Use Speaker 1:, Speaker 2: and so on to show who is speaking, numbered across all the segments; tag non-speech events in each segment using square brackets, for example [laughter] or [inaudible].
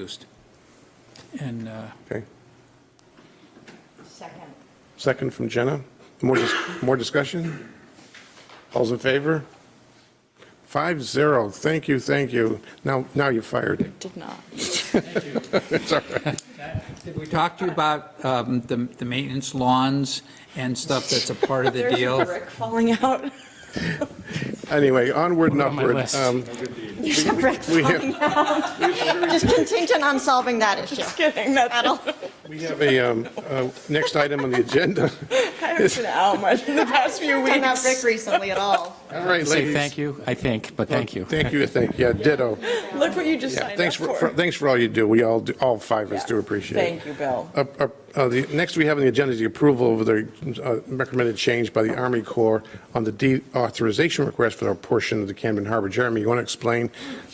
Speaker 1: used. And uh,
Speaker 2: Okay.
Speaker 3: Second.
Speaker 2: Second from Jenna. More, dis- more discussion? All's in favor? Five zero. Thank you, thank you. Now, now you're fired.
Speaker 4: Did not.
Speaker 2: It's all right.
Speaker 1: we talked to you about um, the the maintenance lawns and stuff that's a part of the
Speaker 4: There's
Speaker 1: deal.
Speaker 4: a brick falling out. [laughs]
Speaker 2: Anyway, onward and
Speaker 5: on my
Speaker 2: upward.
Speaker 5: list.
Speaker 2: Um,
Speaker 4: There's a brick
Speaker 2: We
Speaker 4: falling
Speaker 2: have,
Speaker 3: Just contingent on solving that issue.
Speaker 4: Kidding, that's,
Speaker 3: That'll-
Speaker 2: we have a, um, uh, next item on the agenda.
Speaker 4: I haven't been out much in [laughs] the past few
Speaker 3: Done that brick
Speaker 4: weeks.
Speaker 3: recently at all.
Speaker 2: All right,
Speaker 5: Say
Speaker 2: ladies.
Speaker 5: thank you, I think, but thank you.
Speaker 2: Thank you, thank, yeah, ditto.
Speaker 4: Look what you just
Speaker 2: Yeah,
Speaker 4: signed up
Speaker 2: thanks for, for-
Speaker 4: for.
Speaker 2: thanks for all you do. We all, do- all five of us
Speaker 4: Yeah.
Speaker 2: do appreciate it.
Speaker 4: Thank you, Bill.
Speaker 2: Up- up, uh, The Next, we have on the agenda is the approval of the uh, recommended change by the Army Corps on the deauthorization request for a portion of the Camden Harbor. Jeremy, you want to explain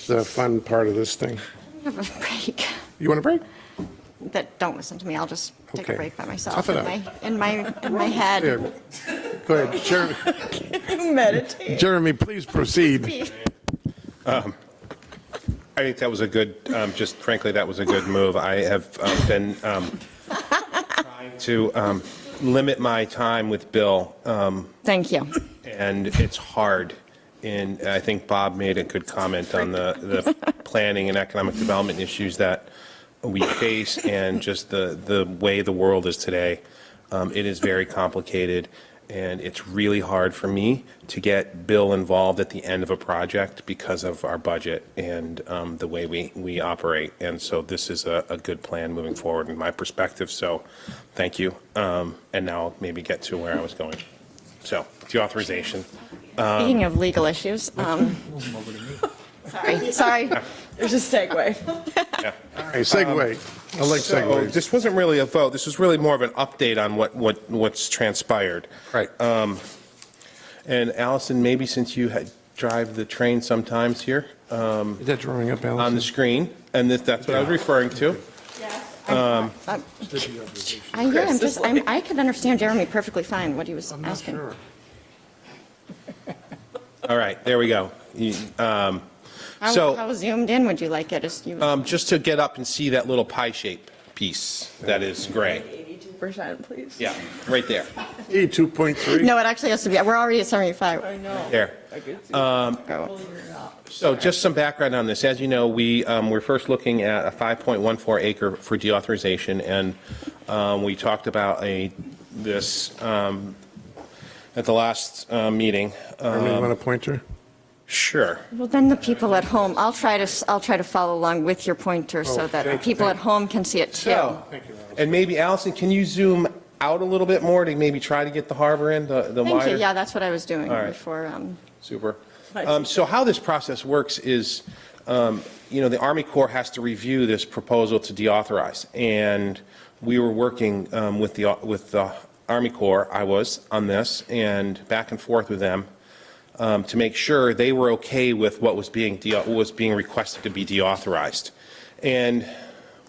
Speaker 2: the fun part of this thing?
Speaker 3: Have a break.
Speaker 2: You want a break?
Speaker 3: That, don't listen to me, I'll just take a
Speaker 2: Okay.
Speaker 3: break by myself
Speaker 2: Tough it
Speaker 3: in
Speaker 2: out.
Speaker 3: my, in my, in my head.
Speaker 2: Yeah. Go ahead. Jer-
Speaker 3: [laughs]
Speaker 4: Meditate.
Speaker 2: Jeremy, please proceed.
Speaker 6: I think that was a good, um, just frankly, that was a good move. I have um, been um, [laughs] trying to um, limit my time with Bill, um,
Speaker 3: Thank you.
Speaker 6: and it's hard. And I think Bob made a good comment on the, the planning and economic development issues that we face and just the, the way the world is today. Um, It is very complicated, and it's really hard for me to get Bill involved at the end of a project because of our budget and um, the way we, we operate. And so this is a, a good plan moving forward in my perspective, so thank you. Um, And now I'll maybe get to where I was going. So, the authorization.
Speaker 3: Speaking of legal issues, um, sorry, sorry.
Speaker 4: There's a segue.
Speaker 2: All right, segue. I like
Speaker 6: So
Speaker 2: segues.
Speaker 6: this wasn't really a vote, this was really more of an update on what, what, what's transpired. Um,
Speaker 2: Right.
Speaker 6: And Allison, maybe since you had, drive the train sometimes here
Speaker 2: Is that drawing up,
Speaker 6: on the
Speaker 2: Allison?
Speaker 6: screen, and this, that's what I was referring to.
Speaker 3: Um, I, yeah, I'm just, I'm, I could understand Jeremy perfectly fine, what he was asking.
Speaker 6: All right, there we go. You- um,
Speaker 3: How,
Speaker 6: So-
Speaker 3: how zoomed in would you like it? Is you,
Speaker 6: um, Just to get up and see that little pie shape piece that is gray.
Speaker 4: 82%, please.
Speaker 6: Yeah, right there,
Speaker 2: E 2.3.
Speaker 3: no, it actually has to be, we're already at 75.
Speaker 4: I know.
Speaker 6: there.
Speaker 4: I could see.
Speaker 3: Go.
Speaker 6: So just some background on this. As you know, we um, were first looking at a 5.14 acre for deauthorization, and um, we talked about a, this um, at the last uh, meeting.
Speaker 2: Jeremy, you
Speaker 6: Um,
Speaker 2: want a pointer?
Speaker 6: Sure.
Speaker 3: Well, then the people at home, I'll try to, s- I'll try to follow along with your
Speaker 6: Oh,
Speaker 3: pointer so that the
Speaker 2: thank-
Speaker 3: people at
Speaker 2: thank-
Speaker 3: home can see it too.
Speaker 6: So, and maybe Allison, can you zoom out a little bit more to maybe try to get the harbor in, the the
Speaker 3: Thank
Speaker 6: wider?
Speaker 3: you, yeah, that's what I was doing
Speaker 6: right.
Speaker 3: before, um,
Speaker 6: Super. Um, So how this process works is, um, you know, the Army Corps has to review this proposal to deauthorize. And we were working um, with the, with the Army Corps, I was, on this, and back and forth with them um, to make sure they were okay with what was being, de- what was being requested to be deauthorized. And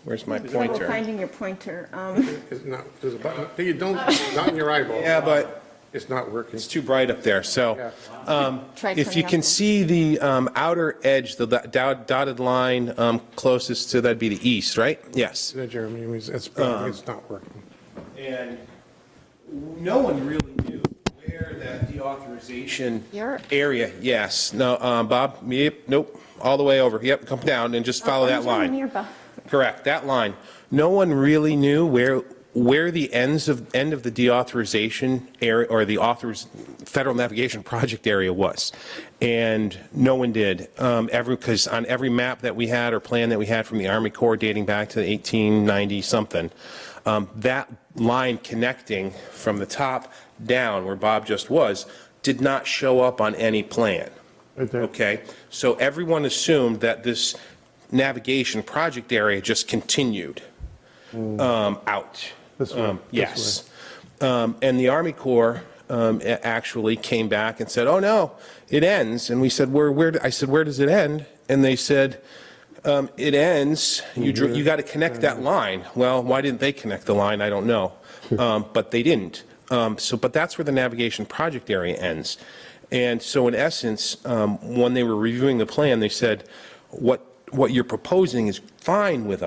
Speaker 6: where's my pointer?
Speaker 3: Finding your pointer, um,
Speaker 2: It's not, there's a button. Hey, you don't, not in your eyeball.
Speaker 6: Yeah, but
Speaker 2: It's not working.
Speaker 6: it's too bright up there, so. um,
Speaker 3: Try
Speaker 6: If
Speaker 3: turning
Speaker 6: you
Speaker 3: up
Speaker 6: can
Speaker 3: there.
Speaker 6: see the um, outer edge, the do- dotted line um, closest to, that'd be the east, right? Yes.
Speaker 2: Yeah, Jeremy, it's, it's it's not working.
Speaker 6: And no one really knew where that deauthorization
Speaker 3: Your-
Speaker 6: area, yes, no, um, Bob, yep, nope, all the way over, yep, come down and
Speaker 3: Oh,
Speaker 6: just follow that line.
Speaker 3: nearby.
Speaker 6: Correct, that line. No one really knew where, where the ends of, end of the deauthorization area, or the authors, federal navigation project area was. And no one did. Um, Every, because on every map that we had or plan that we had from the Army Corps dating back to 1890-something, um, that line connecting from the top down, where Bob just was, did not show up on any plan.
Speaker 2: Right there.
Speaker 6: Okay, so everyone assumed that this navigation project area just continued um, out.
Speaker 2: This way,
Speaker 6: Um,
Speaker 2: this
Speaker 6: Yes. Um, And the Army Corps um, a- actually came back and said, oh, no, it ends. And we said, where, where, I said, where does it end? And they said, um, it ends, you, drew-
Speaker 2: Mm-hmm.
Speaker 6: you got to connect that line. Well, why didn't they connect the line? I don't know.
Speaker 2: [laughs]
Speaker 6: Um, But they didn't. Um, So, but that's where the navigation project area ends. And so in essence, um, when they were reviewing the plan, they said, what, what you're proposing is fine with